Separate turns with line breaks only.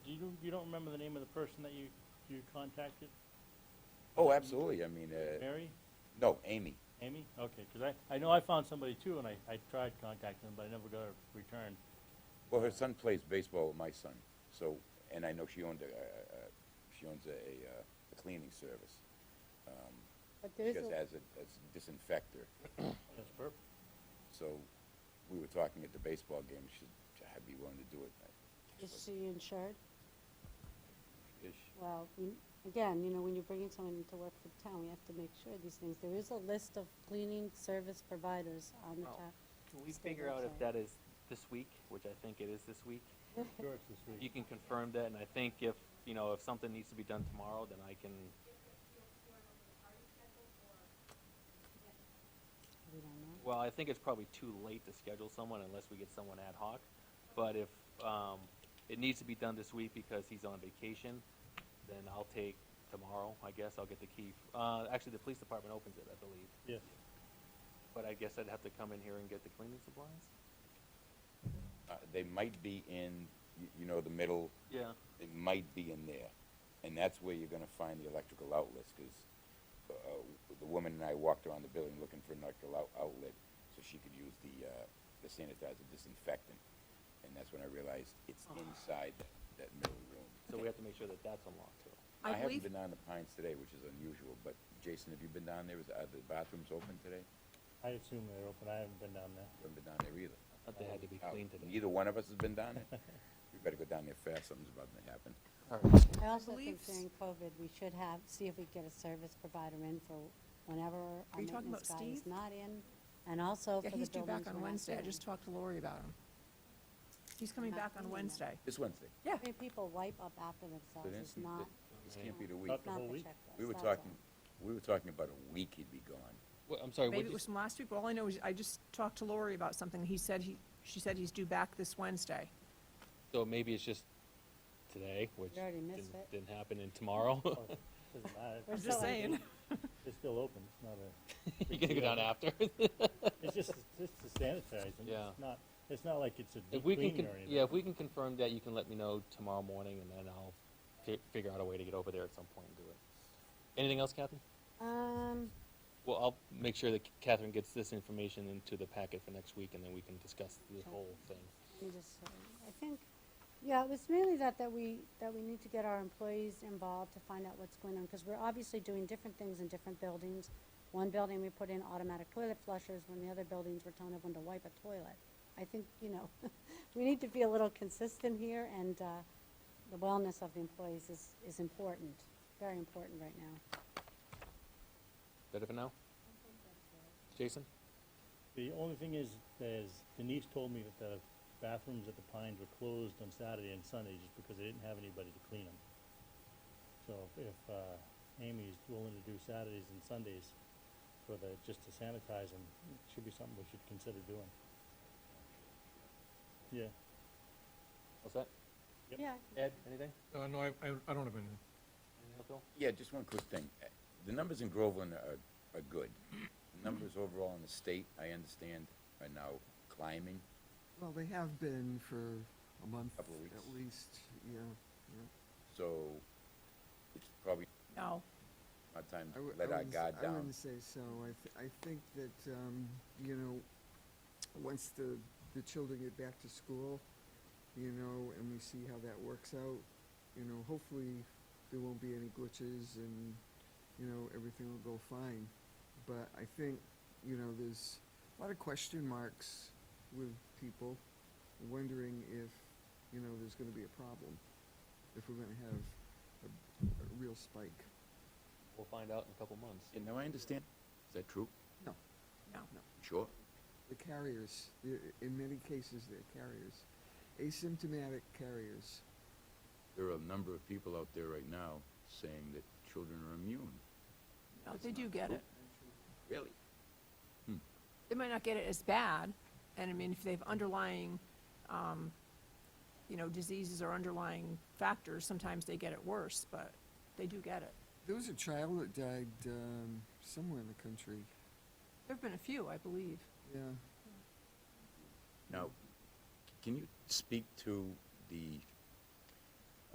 you don't remember the name of the person that you, you contacted?
Oh, absolutely, I mean, uh,
Mary?
no, Amy.
Amy? Okay, because I, I know I found somebody too, and I, I tried contacting them, but I never got a return.
Well, her son plays baseball with my son, so, and I know she owned a, uh, she owns a, uh, a cleaning service. Um,
But
She
there's
does
a,
as a, as a disinfector,
That's perfect.
so we were talking at the baseball game, she, said, I'd be willing to do it. I-
is she insured?
Is she?
Well, we- again, you know, when you're bringing someone into work for the town, we have to make sure these things. There is a list of cleaning service providers on the
Oh.
town.
Can we
Stay
figure out
website.
if that is this week, which I think it is this week?
Sure, it's this
You
week.
can confirm that, and I think if, you know, if something needs to be done tomorrow, then I can,
We don't know.
well, I think it's probably too late to schedule someone unless we get someone ad hoc. But if, um, it needs to be done this week because he's on vacation, then I'll take tomorrow, I guess, I'll get the key. Uh, actually, the police department opens it, I believe,
Yes.
but I guess I'd have to come in here and get the cleaning supplies?
Uh, they might be in, you, you know, the middle,
Yeah.
they might be in there. And that's where you're gonna find the electrical outlets, cause, uh, the woman and I walked around the building looking for an electrical out- outlet, so she could use the, uh, the sanitizer disinfectant. And that's when I realized it's inside that, that middle room.
Uh-huh. So we have to make sure that that's unlocked too.
I
I haven't
believe-
been down the Pines today, which is unusual, but Jason, have you been down there? Is, are the bathrooms open today?
I assume they're open. I haven't been down there.
You haven't been down there either.
But they had to be
Uh,
cleaned today.
Neither one of us has been down there. We better go down there fast, something's about to happen.
I also think
believe s-
during COVID, we should have, see if we get a service provider in for whenever our
you talking
maintenance
about
guy is
Steve?
not in, and also for
Yeah,
the buildings
he's due back on
we're not
Wednesday. I
doing.
just talked to Lori about him. He's coming
Not
back
doing
on
that.
Wednesday.
This Wednesday.
Yeah.
Three people wipe up after
So
themselves,
this-
it's not,
This can't be the week.
Not The whole
not the
week?
checklist.
We were
that's all.
talking, we were talking about a week he'd be gone.
Well, I'm sorry,
Maybe it was from last week. but All I know is I just talked to Lori about something. He said he, she said he's due back this Wednesday.
So maybe it's just today, which
already
didn't,
missed it.
didn't happen, and tomorrow
Oh, Doesn't
We're
matter.
I'm
still
just
open.
saying.
It's still open. It's not a,
you're gonna go down after.
it's just, it's just a sanitizing.
Yeah.
It's not, it's not like it's a
if
deep
we can,
cleaning
con-
or anything.
yeah, if we can confirm that, you can let me know tomorrow morning, and then I'll fi- figure out a way to get over there at some point and do it. Anything else, Catherine?
Um,
Well, I'll make sure that Catherine gets this information into the packet for next week, and then we can discuss the
Okay.
whole thing.
Let me just, say, I think, yeah, it was mainly that, that we, that we need to get our employees involved to find out what's going on, because we're obviously doing different things in different buildings. One building, we put in automatic toilet flushers, when the other buildings, we're telling everyone to wipe a toilet. I think, you know, we need to be a little consistent here, and, uh, the wellness of the employees is, is important, very important right now.
Better for now? Jason?
The only thing is, is Denise told me that the bathrooms at the Pines were closed on Saturday and Sunday just because they didn't have anybody to clean them. So if, if, uh, Amy's willing to do Saturdays and Sundays for the, just to sanitize them, it should be something we should consider doing. Yeah,
What's that?
Yep.
Yeah,
Ed, anything?
Uh, no, I, I, I don't have anything.
Anything else, Bill?
Yeah, just one quick thing. Uh, The numbers in Groveland are, are good. The Numbers overall in the state, I understand, are now climbing.
Well, they have been for a month.
Couple of weeks.
At least, yeah, yeah.
So it's probably
No.
our time
I wou-
to
I
let our
wouldn't s-
guard
I
down.
wouldn't say so. I, th- I think that, um, you know, once the, the children get back to school, you know, and we see how that works out, you know, hopefully there won't be any glitches and, you know, everything will go fine. But I think, you know, there's a lot of question marks with people wondering if, you know, there's gonna be a problem, if we're gonna have a, a real spike.
We'll find out in a couple months.
Yeah, no, I understand. Is that true?
No,
No.
no.
Sure?
the carriers, i- in many cases, they're carriers, asymptomatic carriers.
There are a number of people out there right now saying that children are immune.
No, they do get it.
Really?
They might not get it as bad. And I mean, if they have underlying, um, you know, diseases or underlying factors, sometimes they get it worse, but they do get it.
There was a child that died um, somewhere in the country.
There've been a few, I believe.
Yeah,
Now, can you speak to the